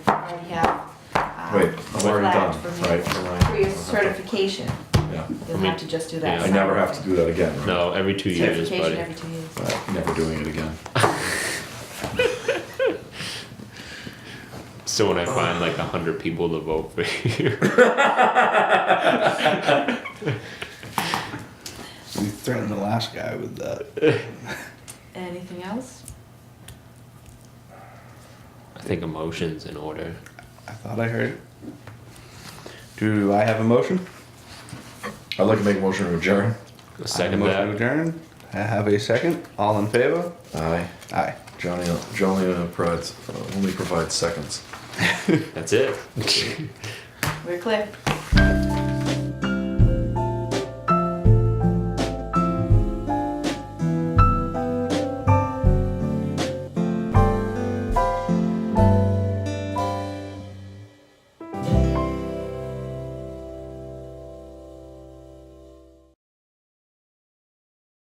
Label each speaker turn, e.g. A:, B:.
A: Right,
B: um,
A: I'm already
B: flagged
A: done,
B: for me.
A: right.
B: For your certification,
A: Yeah.
B: you'll
C: mean,
B: have to just do that.
A: I never have to do that again, right?
C: No, every two years,
B: Certification
C: buddy.
B: every two years.
A: But Never doing it again.
C: So when I find like a hundred people to vote for you,
D: We threatened the last guy with that.
B: Anything else?
C: I think emotions in order.
D: I thought I heard. it. Do I have a motion?
A: I'd like to make a motion to adjourn.
C: A
D: I have a
C: second
D: motion to
C: that.
D: adjourn. I have a second. All in favor?
A: Aye.
D: Aye.
A: Johnny, Johnny uh, provides, uh, only provides seconds.
C: That's it.
B: We're clear.